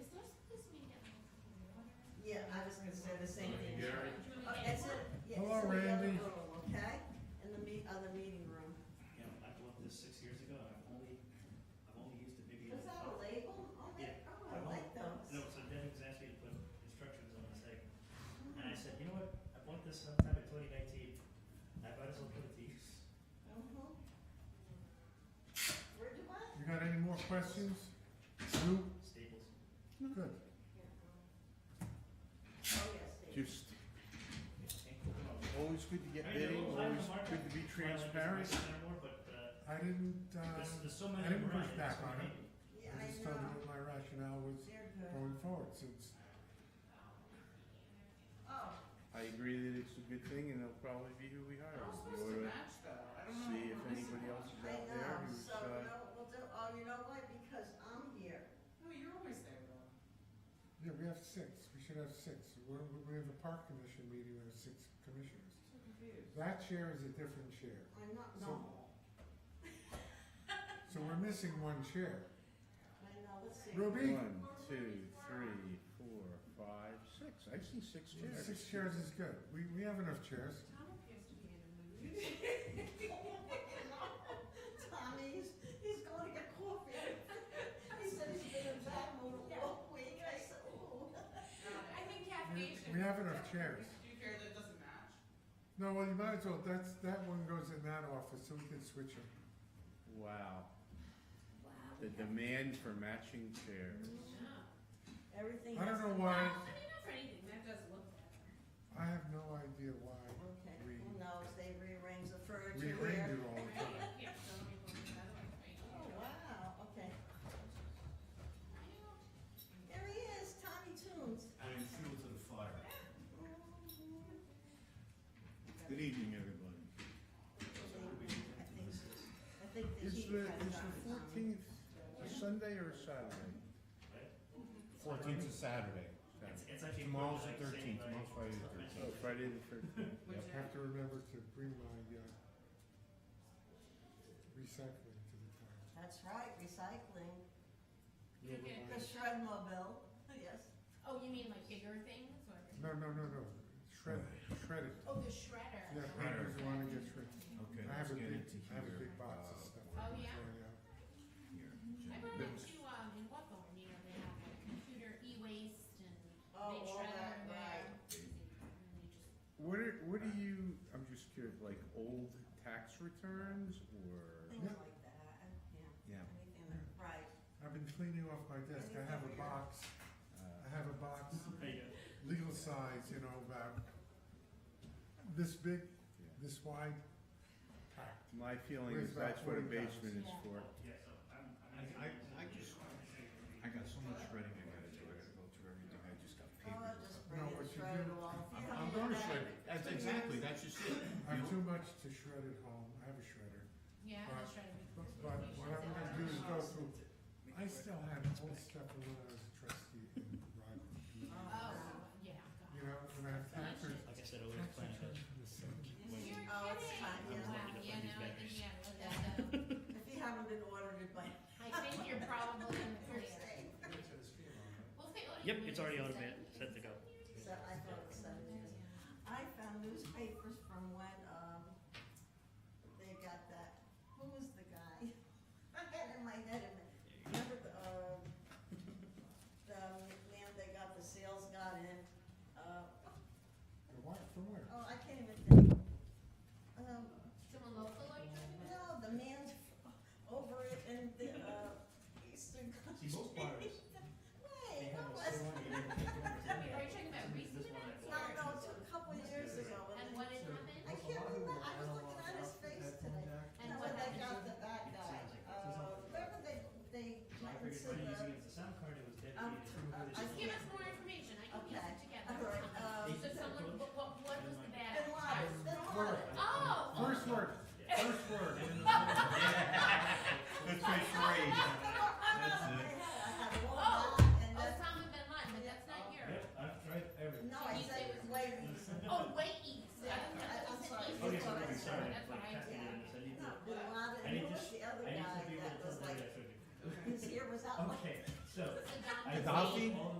Oh, Oh, Uh-huh. Mm-hmm. Oh, questions? Sue? Staples. Good. Just, always good to get bidding, always good to be transparent. Anymore, but, uh, I didn't, uh, there's, there's so many I didn't around, push back so on many. it. Yeah, I just I told you know, what my rationale was they're good. going forward, since Oh, I agree that it's a good thing and it'll probably be who we hire. I'm We supposed to oughta match though, I don't know. See if This is- anybody else is I out there know, who's, so, uh, no, we'll do, oh, you know what, because I'm here, No, you're always there though. Yeah, we have six, we should have six, we're, we- we have a park commission meeting with six commissioners. I'm so confused. That chair is a different chair, I'm not So- normal, so we're missing one chair. I know, let's see. Ruby? One, two, three, four, five, six. I see six chairs. Six chairs is good, we, we have enough chairs. Tom appears to be in a mood. Tommy, he's, he's going to get coffee, he said he's been in bad mood all week, I said, ooh. I think We- caffeine should. we have enough chairs. Do you care that it doesn't match? No, well, you might as well, that's, that one goes in that office, so we can switch them. Wow, the demand for matching chairs. Everything I has don't to- know why, I mean, not for anything, that does look better. I have no idea why Okay, we, who knows, they rearrange the we furniture ring here. it all the time. Yeah, so let me go with that one, right? Oh, wow, okay, I there he is, Tommy Tunes. I am fuel to the fire. Good evening, everybody. I think, I think the Is heat the, comes is on. the fourteenth a Sunday or a Saturday? Fourteenth is Saturday. It's, Saturday. it's actually. Tomorrow's the equivalent, like, thirteenth, same, tomorrow's like, Friday the like, thirteenth. Oh, Friday the Would thirteenth. Yep. you? Have to remember to bring my, uh, recycling to the time. That's right, recycling, You know, Okay. my- the shred mobile, yes. Oh, you mean like bigger things or? No, no, no, no, shred, shred it, Oh, the shredder. yeah, papers wanna get shredded. Okay, I let's have a get big, into I have a here. big box of Oh, stuff. Uh, I'm yeah? throwing out. Uh, I brought it to, um, in Wacom, and, you know, they have like computer e-waste and Oh, they all shredder that, there. right. And you just What are, what do you, I'm just curious, like old tax returns or? Things like that, yeah, Yeah. anything that, right. I've been cleaning off my desk, I have a box, I have a box, There you go. legal size, you know, about this big, this wide, packed. My feeling Where's is that's that what a forty thousand? basement is for. Yeah, so I'm, I'm. I- I- I just- I got so much shredding I gotta do, I gotta go through everything, I just got Oh, papers. I'll just bring No, what it, you shred it do- all. I'm, Yeah, I'm yeah, gonna that- shred, it. that's exactly, that's just it. I have You too much to shred at home, I have a shredder, Yeah, the But- shredder. would- but, but what I'm gonna do is go Oh, through, I still have old stuff from when I was a trustee in Rockland. Oh, yeah, God. You know, when I have tax returns, Like I said, I was tax planning returns from the seventy. You're kidding. Oh, it's fine, yeah. Wow, yeah, no, I think, yeah, well, that, uh, If you haven't been audited by I think you're probably in the clear. Thursday, Well, they already Yep, moved it's already it, automated, so- set to go. so I thought it said it was- I found newspapers from when, um, they got that, who was the guy? I had in my head, a minute. remember the, uh, the man they got, the sales got in, uh, What, from where? oh, I can't even think. Um, Someone local are you talking about? no, the man over it in the, uh, Eastern Country. Wait, what was Wait, Are you talking about recent This one events I- No, no, or? it took a couple of years ago when And they- what had happened? I can't remember, I was looking at his face today. And And what when they happened? got the bad guy, uh, remember they, they uh, I went and said figured by using the, it as a sound card, it was um, dedicated. uh, I It's Just just- give can't, us more information, I can piece Okay. it together. all right, um, So someone, what, what, what was the bad? Bin Laden, Bin Word. Laden. Oh! First word, first word. Let's say charade. I had one Oh. line and that's, Oh. Osama bin Laden, but that's not yours. Yep, I've tried everything. no, I You said say it was way east. Oh, way east. I don't know, Yeah, that I'm was sorry. an east. Okay, That's so what I I'm said. sorry, That's like, what I casting did. it in this, I need No, to, Bin Laden, I and need who to, was the other I need to guy be able that to was tell where like, that should be. his ear was out like Okay, so. Saddam I Hussein. found all